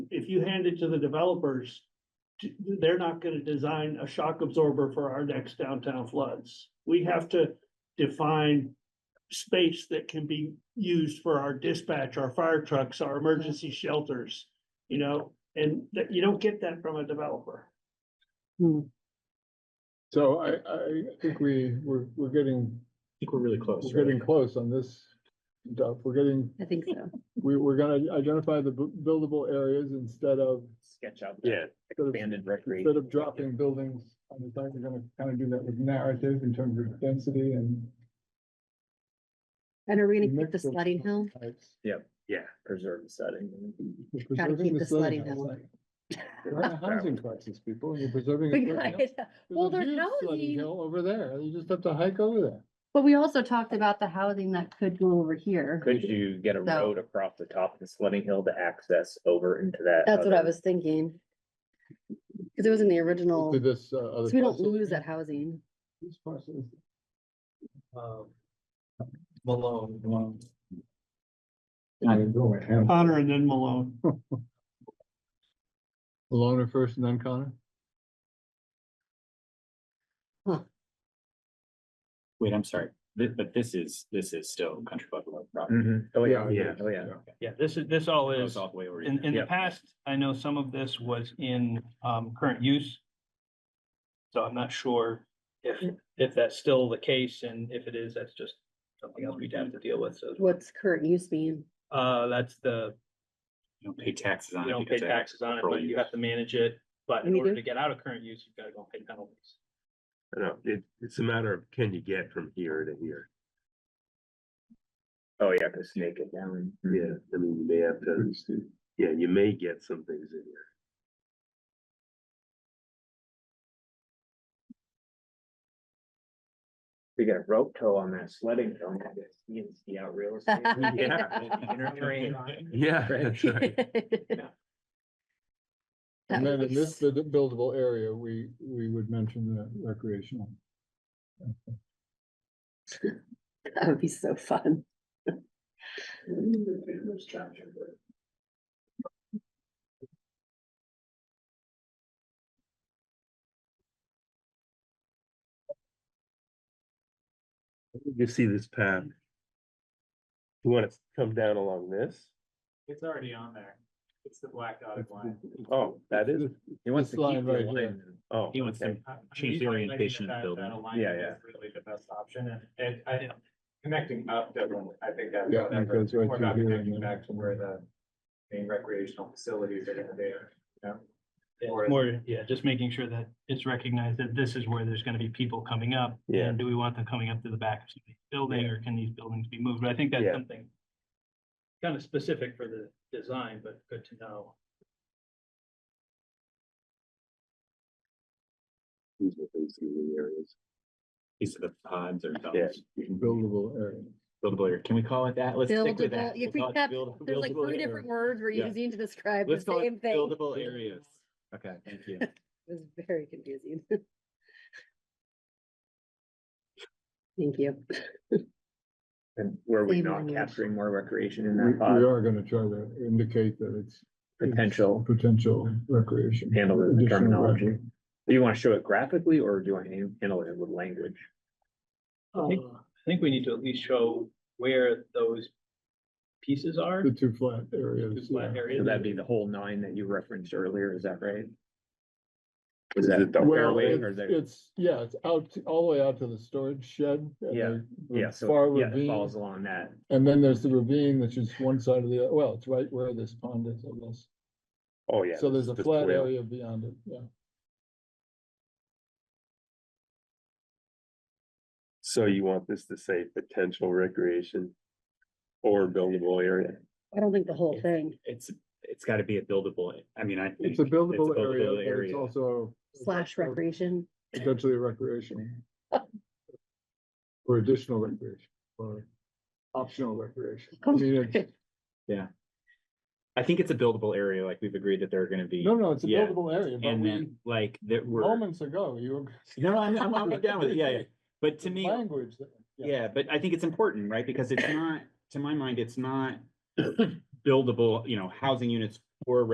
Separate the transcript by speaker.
Speaker 1: you hand it to the developers, t- they're not gonna design a shock absorber for our next downtown floods. We have to define space that can be used for our dispatch, our fire trucks, our emergency shelters, you know, and that, you don't get that from a developer.
Speaker 2: So I, I think we, we're, we're getting,
Speaker 3: think we're really close.
Speaker 2: we're getting close on this. stuff. We're getting,
Speaker 4: I think so.
Speaker 2: we, we're gonna identify the bu- buildable areas instead of,
Speaker 3: Sketch out.
Speaker 5: Yeah.
Speaker 2: instead of
Speaker 3: Abandoned recreation.
Speaker 2: Instead of dropping buildings on the side, we're gonna kind of do that with narrative in terms of density and.
Speaker 4: And are we gonna keep
Speaker 2: mix
Speaker 4: the
Speaker 2: of
Speaker 4: sledding hill?
Speaker 2: types.
Speaker 5: Yeah.
Speaker 3: Preserve the setting.
Speaker 2: We're
Speaker 4: Gotta
Speaker 2: preserving
Speaker 4: keep the sledding
Speaker 2: house.
Speaker 4: hill.
Speaker 2: We're in a housing crisis, people, and you're preserving. a
Speaker 4: We
Speaker 2: sledding
Speaker 4: got
Speaker 2: hill.
Speaker 4: it. Well,
Speaker 2: There's a
Speaker 4: they're
Speaker 2: huge sledding
Speaker 4: housing.
Speaker 2: hill Over there, you just have to hike over there.
Speaker 4: But we also talked about the housing that could go over here.
Speaker 3: Could you get a
Speaker 4: So-
Speaker 3: road across the top of the sledding hill to access over into that?
Speaker 4: That's what I
Speaker 3: other-
Speaker 4: was thinking. Cause it was in the original,
Speaker 2: To
Speaker 4: so
Speaker 2: this, uh, other.
Speaker 4: we don't
Speaker 2: parcel.
Speaker 4: lose that housing.
Speaker 2: This parcel is-
Speaker 5: Malone, Malone.
Speaker 1: Connor and then Malone.
Speaker 2: Loner first and then Connor?
Speaker 5: Wait, I'm sorry, Thi- but this is, this is still Country Club Road property.
Speaker 3: Mhm. Oh, yeah,
Speaker 2: Mm-hmm. Yeah.
Speaker 3: yeah, oh, yeah.
Speaker 6: Yeah, this is, this all
Speaker 5: Goes
Speaker 6: is,
Speaker 5: all the way over.
Speaker 6: in, in the
Speaker 3: Yeah.
Speaker 6: past, I know some of this was in, um, current use. So I'm not sure if, if that's still the case, and if it is, that's just something else we'd have to deal with, so.
Speaker 4: What's current use mean?
Speaker 6: Uh, that's the,
Speaker 5: You don't pay taxes on it.
Speaker 6: you don't pay
Speaker 5: because
Speaker 6: taxes on it,
Speaker 5: control
Speaker 6: but you
Speaker 5: use.
Speaker 6: have to manage it, but in
Speaker 4: We
Speaker 6: order
Speaker 4: do.
Speaker 6: to get out of current use, you've gotta go pay penalties.
Speaker 7: No, it, it's a matter of can you get from here to here?
Speaker 3: Oh, yeah, cause snake it down.
Speaker 7: Yeah, I mean, you may have to, yeah, you may get some things in here.
Speaker 3: We got a rope tow on that sledding hill, and you can see out real estate.
Speaker 4: Yeah.
Speaker 3: Inner train.
Speaker 7: Yeah, that's right.
Speaker 4: That
Speaker 2: And then
Speaker 4: would
Speaker 2: in
Speaker 4: be
Speaker 2: this
Speaker 4: s-
Speaker 2: bu- buildable area, we, we would mention the recreational.
Speaker 4: that would be so fun.
Speaker 7: You see this path? You wanna come down along this?
Speaker 6: It's already on there. It's the black dotted line.
Speaker 7: Oh, that is,
Speaker 3: He wants to
Speaker 2: This line
Speaker 3: keep the
Speaker 2: right here.
Speaker 3: line.
Speaker 7: oh,
Speaker 5: He wants to
Speaker 7: okay.
Speaker 6: Uh,
Speaker 5: change the orientation of the building.
Speaker 3: Yeah, yeah.
Speaker 6: Really the best option, and, and I, connecting up, definitely, I think that's.
Speaker 2: Yeah, it goes right
Speaker 6: We're
Speaker 2: through
Speaker 6: not
Speaker 2: here
Speaker 6: connecting
Speaker 2: and
Speaker 6: back to
Speaker 2: then.
Speaker 6: where the main recreational facilities are gonna be, you know? More, yeah, just making sure that it's recognized that this is where there's gonna be people coming up.
Speaker 7: Yeah.
Speaker 6: And do we want them coming up to the back of the building, or can these buildings be moved? But I think that's
Speaker 7: Yeah.
Speaker 6: something kind of specific for the design, but good to know.
Speaker 7: These are things in the areas.
Speaker 5: These are the pods or.
Speaker 7: Yeah.
Speaker 5: domes.
Speaker 2: Buildable area.
Speaker 5: Buildable area. Can we call it that? Let's stick with
Speaker 4: Buildable,
Speaker 5: that.
Speaker 4: you
Speaker 5: We'll call it
Speaker 4: kept-
Speaker 5: build-
Speaker 4: there's like
Speaker 5: buildable
Speaker 4: three
Speaker 5: area.
Speaker 4: different words we're
Speaker 5: Yeah.
Speaker 4: using to describe the
Speaker 5: Let's call
Speaker 4: same
Speaker 5: it
Speaker 4: thing. It
Speaker 5: buildable areas. Okay, thank you.
Speaker 4: was very confusing. Thank you.
Speaker 3: And were we
Speaker 4: Same
Speaker 3: not
Speaker 4: language.
Speaker 3: capturing more recreation in
Speaker 2: We,
Speaker 3: that
Speaker 2: we
Speaker 3: pod?
Speaker 2: are gonna try to indicate that it's
Speaker 3: Potential,
Speaker 2: potential recreation.
Speaker 3: handle the
Speaker 2: additional
Speaker 3: terminology.
Speaker 2: recre-
Speaker 3: Do you wanna show it graphically or do you want to handle it with language?
Speaker 6: think-
Speaker 1: Uh,
Speaker 6: I think we need to at least show where those pieces are.
Speaker 2: The two flat areas.
Speaker 6: flat
Speaker 2: yeah.
Speaker 3: So
Speaker 6: areas.
Speaker 3: that'd be the whole nine that you referenced earlier, is that right?
Speaker 7: Is
Speaker 3: Is that
Speaker 7: it the
Speaker 2: Well,
Speaker 3: fairway
Speaker 2: it's,
Speaker 3: or the-
Speaker 2: it's, yeah, it's out, to- all the way out to the storage shed. and
Speaker 3: Yeah,
Speaker 2: the- the
Speaker 3: Yeah,
Speaker 2: Far
Speaker 3: so, yeah, it
Speaker 2: ravine.
Speaker 3: falls along that.
Speaker 2: And then there's the ravine, which is one side of the, well, it's right where this pond is, I guess.
Speaker 7: Oh, yeah.
Speaker 2: So there's a
Speaker 7: the
Speaker 2: flat
Speaker 7: trail.
Speaker 2: area beyond it, yeah.
Speaker 7: So you want this to say potential recreation or buildable area?
Speaker 4: I don't think the whole thing.
Speaker 5: It's, it's gotta be a buildable, I mean, I.
Speaker 2: It's a
Speaker 5: think
Speaker 2: buildable area,
Speaker 5: buildable
Speaker 2: but it's
Speaker 5: area.
Speaker 2: also.
Speaker 4: slash recreation.
Speaker 2: Potentially recreational. Or additional recreation, or optional recreation. I mean, it's-
Speaker 5: I think it's a buildable area, like we've agreed that there are gonna be,
Speaker 2: no, no, it's a
Speaker 5: Yeah.
Speaker 2: buildable area, but
Speaker 5: and
Speaker 2: we,
Speaker 5: then like that we're.
Speaker 2: moments ago, you were.
Speaker 5: No, I'm, I'm, I'm down with it, yeah, yeah, but to me,
Speaker 2: Language. that-
Speaker 5: yeah, but I think it's important, right, because it's not, to my mind, it's not buildable, you know, housing units for